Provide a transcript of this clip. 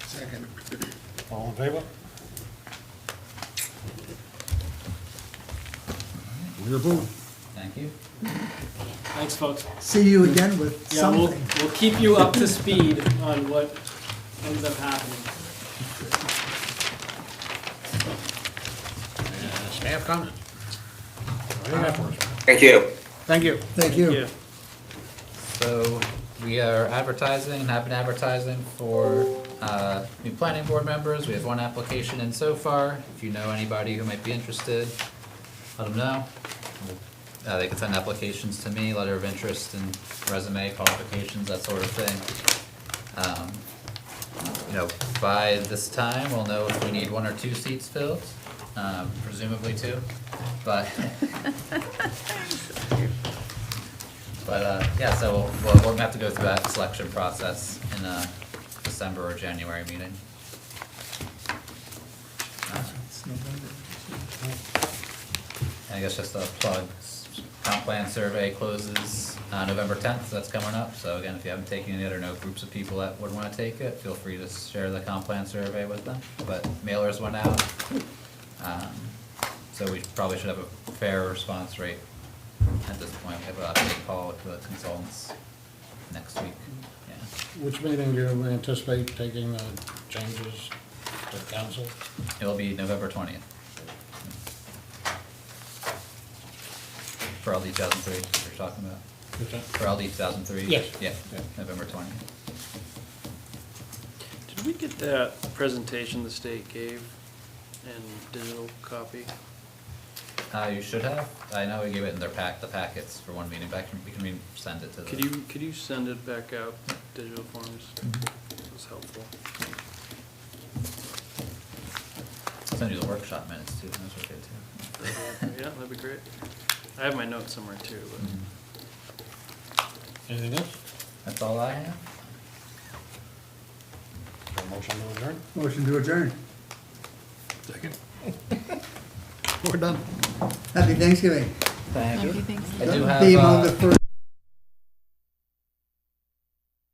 Second. All in favor? We're approved. Thank you. Thanks, folks. See you again with Yeah, we'll, something. we'll keep you up to speed on what ends up happening. Staff comment? What do you got for us? Thank you. Thank you. Thank you. So we are advertising and have been advertising for uh, new planning board members. We have one application in so far. If you know anybody who might be interested, let them know. Uh, They can send applications to me, letter of interest and resume qualifications, that sort of thing. Um, You know, by this time, we'll know if we need one or two seats filled, um, presumably two, but. But, uh, yeah, so we'll, we'll- we're gonna have to go through that selection process in a December or January meeting. Uh, It's November. And I guess just a plug, s- comp plan survey closes, uh, November tenth, that's coming up, so again, if you haven't taken it or know groups of people that would wanna take it, feel free to share the comp plan survey with them, but mailers went out. Um, So we probably should have a fair response rate at this point, we have a update call with the consultants next week, yeah. Which meeting do you anticipate taking the changes to council? It'll be November twentieth. For all these thousand three you're talking about. Is that- For LD 2003? Yes. Yeah, Yeah. November 20. Did we get that presentation the state gave in digital copy? Uh, you should have. I know we gave it in their pack, the packets for one meeting, but I can- we can re- send it to the. Could you, could you send it back out, digital forms? It was helpful. Send you the workshop minutes too, those were good too. Yeah, that'd be great. I have my notes somewhere too, Mhm. Anything else? That's all I have. Is there a Motion to adjourn? Motion to adjourn. Second. We're done. Happy Thanksgiving. Thank Happy Thanksgiving. I do have, Theme on the uh, first.